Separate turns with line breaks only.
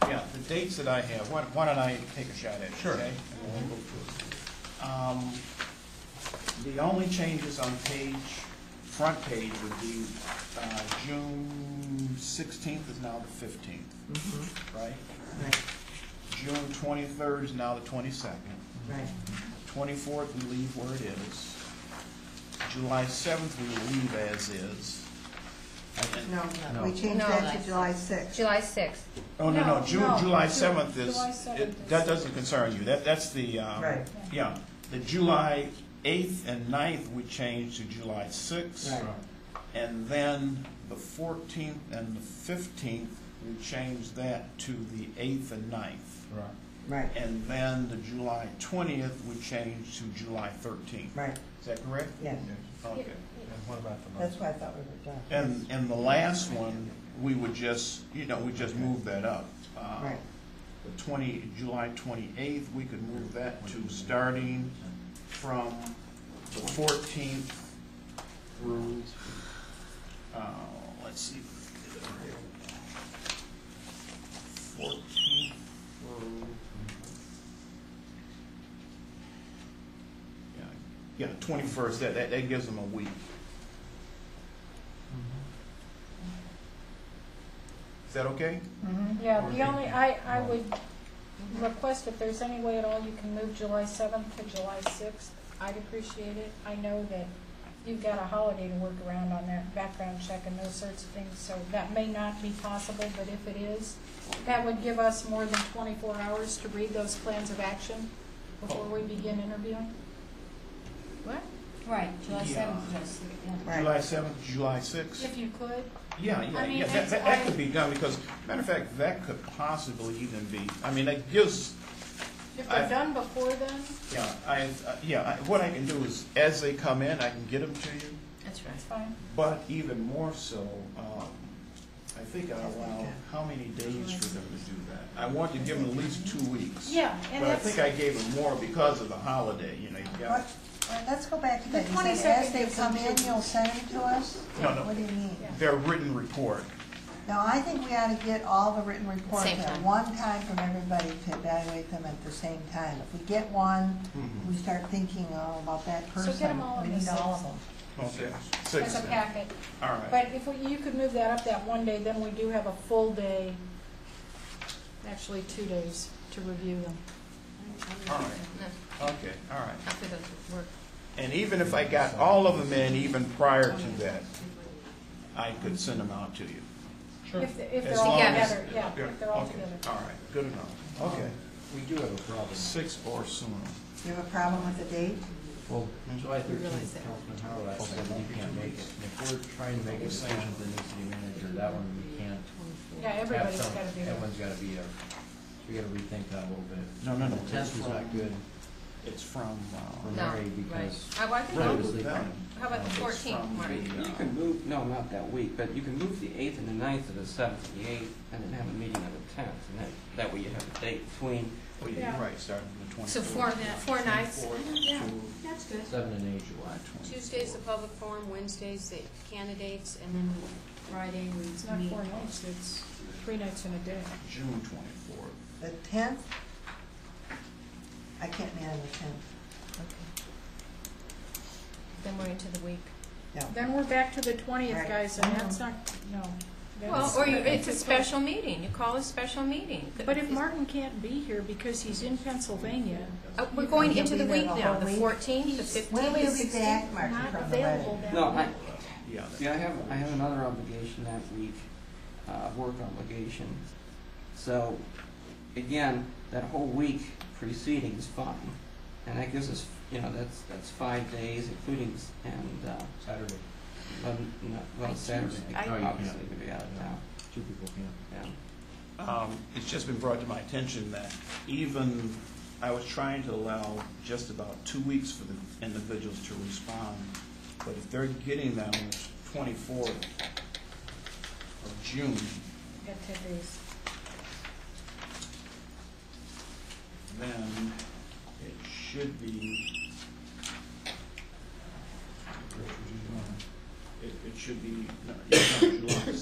the dates that I have, why why don't I take a shot at it,
Sure.
okay? Um, The only changes on page, front page would be uh, June sixteenth is now the fifteenth,
Mhm.
right?
Right,
June twenty-third is now the twenty-second.
right.
Twenty-fourth, we leave where it is. July seventh, we leave as is. And-
No,
No.
we changed
No,
that
that's-
to July sixth.
July sixth.
Oh, no, no,
No,
June,
no,
July
Ju-
seventh is,
July 7th
it-
is-
that doesn't concern you, that, that's the, um,
Right.
yeah. The July eighth and 9th we changed to July sixth.
Right.
And then the fourteenth and the fifteenth, we changed that to the eighth and 9th.
Right.
Right,
And then the July twentieth, we changed to July thirteenth.
right,
Is that correct?
yeah,
Okay.
And what about the
that's
month?
why I thought we were done.
And, and the last one, we would just, you know, we just move that up. Uh,
Right,
The twenty, July twenty-eighth, we could move that to starting from the fourteenth through, uh, let's see. Fourteenth through. Yeah, Yeah, twenty-first, that, that, that gives them a week. Is that okay?
Yeah, the only, I, I would request if there's any way at all you can move July seventh to July sixth, I'd appreciate it. I know that you've got a holiday to work around on that background check and those sorts of things, so that may not be possible, but if it is, that would give us more than twenty-four hours to read those plans of action before we begin interviewing. What?
Right, July
Yeah.
seventh, July sixth, yeah.
right.
July seventh, July sixth?
If you could,
Yeah,
I
yeah,
mean,
yeah, that,
it's-
that- that
I-
could be done, because, matter of fact, that could possibly even be, I mean, that gives,
if
I-
they're done before then,
yeah, I, uh, yeah, I- what I can do is, as they come in, I can get them to you,
That's
it's
right.
fine.
but even more so, um, I think I allow, how many days for them to do that? I want to give them at least two weeks.
Yeah, and
But I
that's,
think I gave them more because of the holiday, you know, you got,
What- well, Let's go back to
The
that. You said
22nd
As they
gives
come
them
in,
two-
you'll send them to us?
No, no.
What do you mean?
Yeah.
their written report.
No, I think we ought to get all the written reports
Same
at
time.
one time from everybody to evaluate them at the same time. If we get one,
Mm-hmm.
we start thinking, oh, about that
So
person.
get 'em all in
We
the
need all of
six.
them.
Okay.
as
Six,
a
then.
packet.
all right,
But if we- you could move that up that one day, then we do have a full day, actually two days, to review them.
All right. okay, all right.
After those would work.
And even if I got all of them in, even prior to that, I could send them out to you.
If they- if
As
they're all
long as-
together, yeah, if they're all
okay,
together.
All right, good enough. Okay,
We do have a problem.
six or sooner.
You have a problem with the date?
Well, July
realize
thirteenth,
that.
Councilman Howard, I said we can't make it. And If we're trying to make a decision for the new city manager, that one we can't.
Yeah,
have
everybody's
some-
got to do that.
Everyone's gotta be there. We gotta rethink that a little bit.
No, no, no, it's
Tenth was not
from,
good
it's from,
for
uh,
No,
Mary
right.
because.
Uh, well, I think,
Right.
it
I'll-
was the-
That one.
how about the
it's
fourteenth,
from
Marty?
the, uh,
You can move, no, not that week, but you can move the eighth and the ninth to the seventh and the eighth, and then have a meeting on the tenth, and then, that way you have a date between,
Oh, yeah,
Yeah.
you're right, starting from the twenty-fourth.
So four, four nights,
Yeah.
that's good.
Seven and eight July twenty.
Tuesday's the public forum, Wednesday's the candidates, and then Friday we meet.
It's not four nights, it's three nights and a day.
June twenty-fourth.
The tenth? I can't meet on the tenth.
Then we're into the week.
Then we're back to the twentieth,
Right.
guys, and that's not, no.
Well,
that's-
or you, it's a special meeting, you call a special meeting.
But if Martin can't be here because he's in Pennsylvania,
Uh, We're going
He'll
into
be
the
there
week
the
now,
whole
the
week.
fourteenth, the fifteenth,
When will
the
you be
sixteenth.
back, Martin,
not
from the wedding?
available that
no, I,
week.
Yeah. that-
see, I have, I have another obligation that week, uh, work obligation. So, again, that whole week preceding is fine, and that gives us, you know, that's, that's five days, including, s- and, uh,
Saturday,
eleven- no,
I
well, Saturday,
choose- I-
No, you
obviously,
can't.
we'd be out of town,
two people can't.
yeah.
Um, It's just been brought to my attention that even, I was trying to allow just about two weeks for the individuals to respond, but if they're getting that on the twenty-fourth of June,
Got ten days.
then it should be, it it should be, no, it's not July